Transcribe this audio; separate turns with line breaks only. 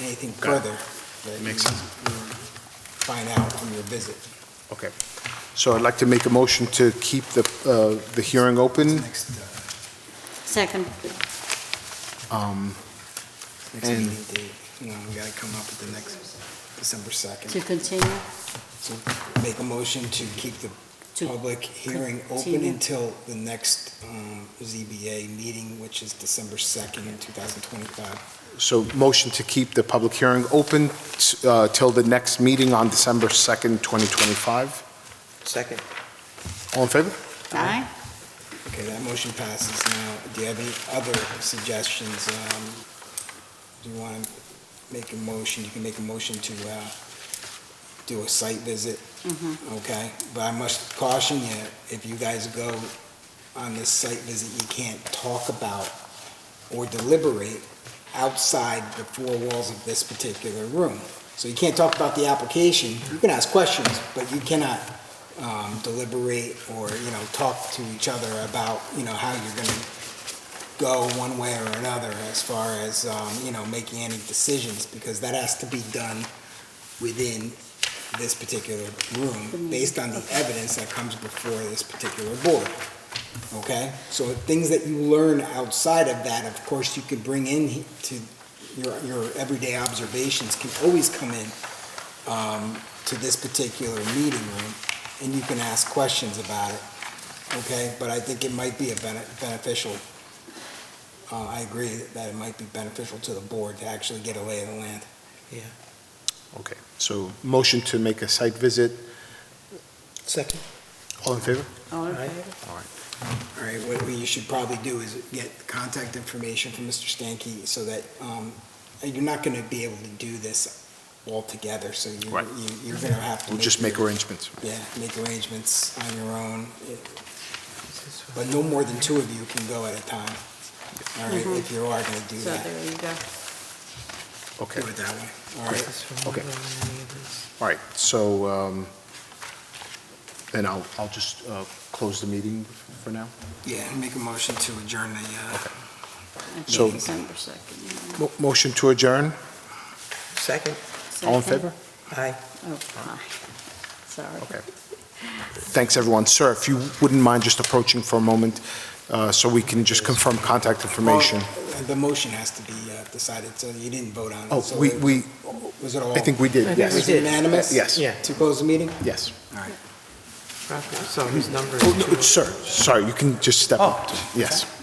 anything
Got it.
further that
Makes
you
sense.
will find out from your visit
Okay.
So I'd like to make a motion to keep the, uh, the hearing open
next, uh,
Second.
um,
next
And-
meeting date. You know, we gotta come up with the next December
To
2nd.
continue?
So make a motion to keep the
To-
public hearing open
continue.
until the next um, ZBA meeting, which is December 2nd, 2025.
so motion to keep the public hearing open uh, till the next meeting on December 2nd, 2025.
Second.
All in favor?
Aye.
Okay, that motion passes now. Do you have any other suggestions? Um, Do you want to make a motion? You can make a motion to uh, do a site visit,
Mhm.
okay? But I must caution you, if you guys go on this site visit, you can't talk about or deliberate outside the four walls of this particular room. So you can't talk about the application. You can ask questions, but you cannot um, deliberate or, you know, talk to each other about, you know, how you're gonna go one way or another as far as, um, you know, making any decisions, because that has to be done within this particular room, based on the evidence that comes before this particular board, okay? So things that you learn outside of that, of course, you could bring in he- to, your, your everyday observations can always come in um, to this particular meeting room, and you can ask questions about it, okay? But I think it might be a bene- beneficial, uh, I agree that it might be beneficial to the board to actually get a lay of the land.
Okay, so motion to make a site visit.
Second.
All in favor?
All in
Aye.
favor?
All right, what we should probably do is get contact information from Mr. Stankey so that, um, you're not gonna be able to do this all together, so you,
Right.
you- you're gonna have to.
We'll just make arrangements.
Yeah, make arrangements on your own, but no more than two of you can go at a time. All right, if you are gonna do
Mm-hmm. So
that,
there you go.
Okay,
do it that way, all right?
Okay. all right, so um, then I'll, I'll just uh, close the meeting for now.
Yeah, make a motion to adjourn the, uh,
Until
So-
December 2nd.
Mo- Motion to adjourn.
Second.
All in favor?
Aye.
Oh, aye. Sorry.
Okay. Thanks, everyone. Sir, if you wouldn't mind just approaching for a moment, uh, so we can just confirm contact information.
Well, The motion has to be uh, decided, so you didn't vote on it.
Oh,
so
we,
it-
we,
Was it all?
I think we did,
Was
think
yes,
we
it
did.
unanimous?
Yes.
Yeah.
To close the meeting?
yes.
All right.
So his number
Oh, no,
is two.
Sir, sorry, you can just step up. Yes.